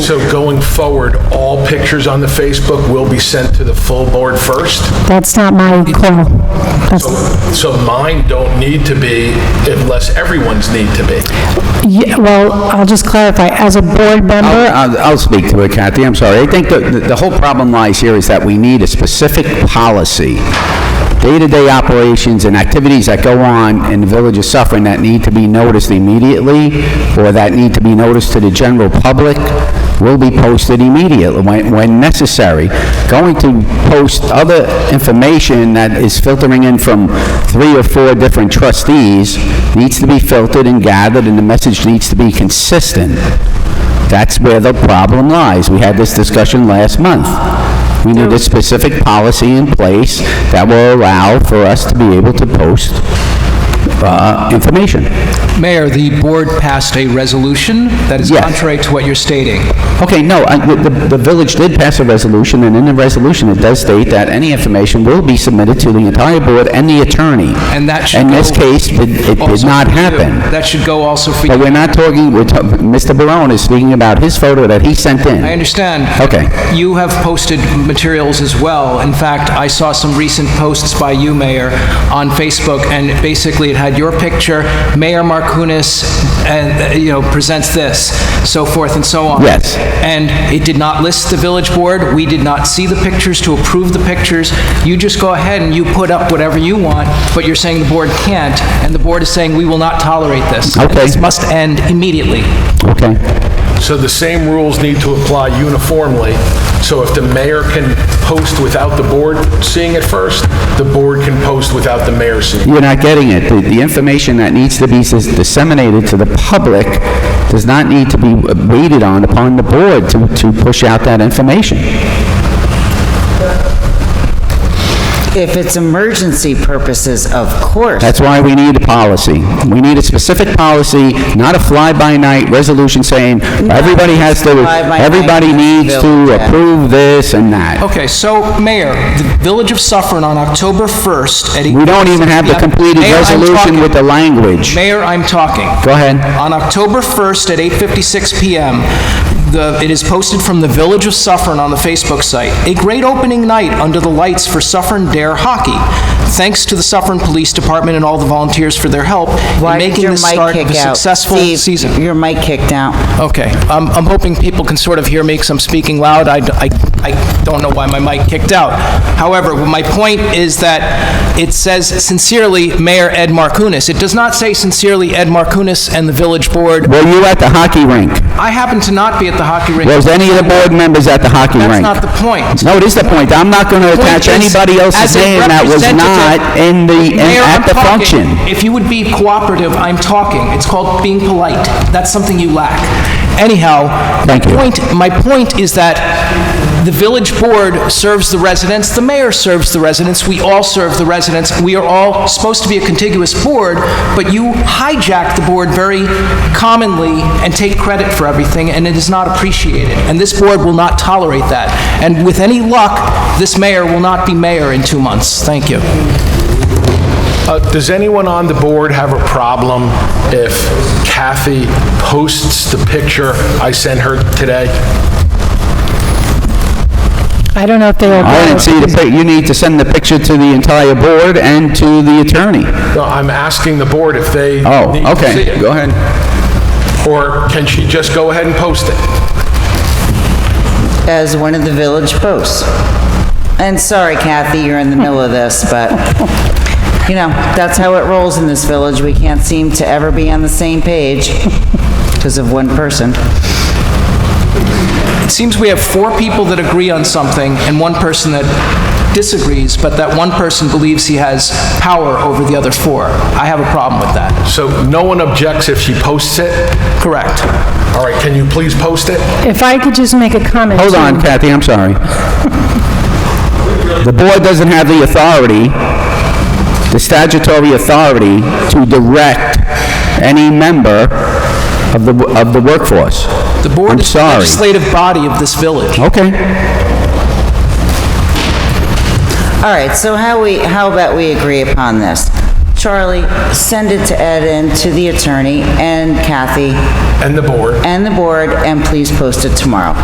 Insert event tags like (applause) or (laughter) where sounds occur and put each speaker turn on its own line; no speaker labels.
so going forward, all pictures on the Facebook will be sent to the full board first?
That's not my call. That's-
So mine don't need to be unless everyone's need to be.
yeah, Well, I'll just clarify, as a board member,
I'll I'll speak to it, Kathy, I'm sorry. I think the- the the whole problem lies here is that we need a specific policy. Day-to-day operations and activities that go on in the Village of Suffering that need to be noticed immediately, or that need to be noticed to the general public, will be posted immediately when when necessary. Going to post other information that is filtering in from three or four different trustees needs to be filtered and gathered, and the message needs to be consistent. That's where the problem lies. We had this discussion last month. We need a specific policy in place that will allow for us to be able to post uh, information.
Mayor, the board passed a resolution that is
Yes.
contrary to what you're stating.
Okay, no, I- the the village did pass a resolution, and in the resolution, it does state that any information will be submitted to the entire board and the attorney.
And that should
In this
go-
case, it it did
Also
not
for you.
happen.
That should go also for
But
you.
we're not talking, we're talk- Mr. Barone is speaking about his photo that he sent in.
I understand.
Okay.
You have posted materials as well. In fact, I saw some recent posts by you, Mayor, on Facebook, and basically it had your picture, Mayor Markounis, and, uh, you know, presents this, so forth and so on.
Yes.
And it did not list the village board. We did not see the pictures to approve the pictures. You just go ahead and you put up whatever you want, but you're saying the board can't, and the board is saying, "We will not tolerate this." And
Okay.
This must end immediately.
Okay.
So the same rules need to apply uniformly. So if the mayor can post without the board seeing it first, the board can post without the mayor seeing it.
You're not getting it. The- The information that needs to be dis- disseminated to the public does not need to be uh, waited on upon the board to to push out that information.
If it's emergency purposes, of course.
That's why we need a policy. We need a specific policy, not a fly-by-night resolution saying, everybody has to,
fly-by-night
everybody needs to
village, yeah.
approve this and that.
Okay, so, Mayor, the Village of Suffern on October 1st at...
We don't even have the completed
Mayor, I'm
resolution
talking.
with the language.
Mayor, I'm talking.
Go ahead.
On October 1st at 8:56 PM, the- it is posted from the Village of Suffern on the Facebook site, "A great opening night under the lights for Suffern Dare Hockey. Thanks to the Suffern Police Department and all the volunteers for their help in
Why did
making
your
the
mic
start of a
kick out?
successful
Steve,
season."
Your mic kicked out.
Okay, I'm, I'm hoping people can sort of hear me, because I'm speaking loud. I, d- I- I don't know why my mic kicked out. However, my point is that it says sincerely Mayor Ed Markounis. It does not say sincerely Ed Markounis and the village board.
Were you at the hockey rink?
I happen to not be at the hockey rink.
Was any of the board members at the hockey rink?
That's not the point.
No, it is the point. I'm not going to attach
Point is,
anybody else's
as a
name that was not
representative-
in the, in-
Mayor, I'm
at the
talking.
function.
If you would be cooperative, I'm talking. It's called being polite. That's something you lack. Anyhow, my
Thank you.
point, my point is that the village board serves the residents, the mayor serves the residents, we all serve the residents. We are all supposed to be a contiguous board, but you hijack the board very commonly and take credit for everything, and it is not appreciated. And this board will not tolerate that. And with any luck, this mayor will not be mayor in two months. Thank you.
Uh, Does anyone on the board have a problem if Kathy posts the picture I sent her today?
I don't know if they are...
I didn't see the, pic- you need to send the picture to the entire board and to the attorney.
No, I'm asking the board if they
Oh,
need to see
okay,
it.
go ahead.
Or can she just go ahead and post it?
As one of the village posts. And sorry, Kathy, you're in the middle of this, but, you know, that's how it rolls in this village. We can't seem to ever be on the same page because of one person.
It seems we have four people that agree on something and one person that disagrees, but that one person believes he has power over the other four. I have a problem with that.
So no one objects if she posts it?
Correct.
All right, can you please post it?
If I could just make a comment...
Hold
too.
on, Kathy, I'm sorry. (laughs) The board doesn't have the authority, the statutory authority, to direct any member of the, of the workforce.
The board
I'm
is the
sorry.
legislative body of this village.
Okay.
All right, so how we, how about we agree upon this? Charlie, send it to Ed and to the attorney and Kathy
And the board?
and the board, and please post it tomorrow.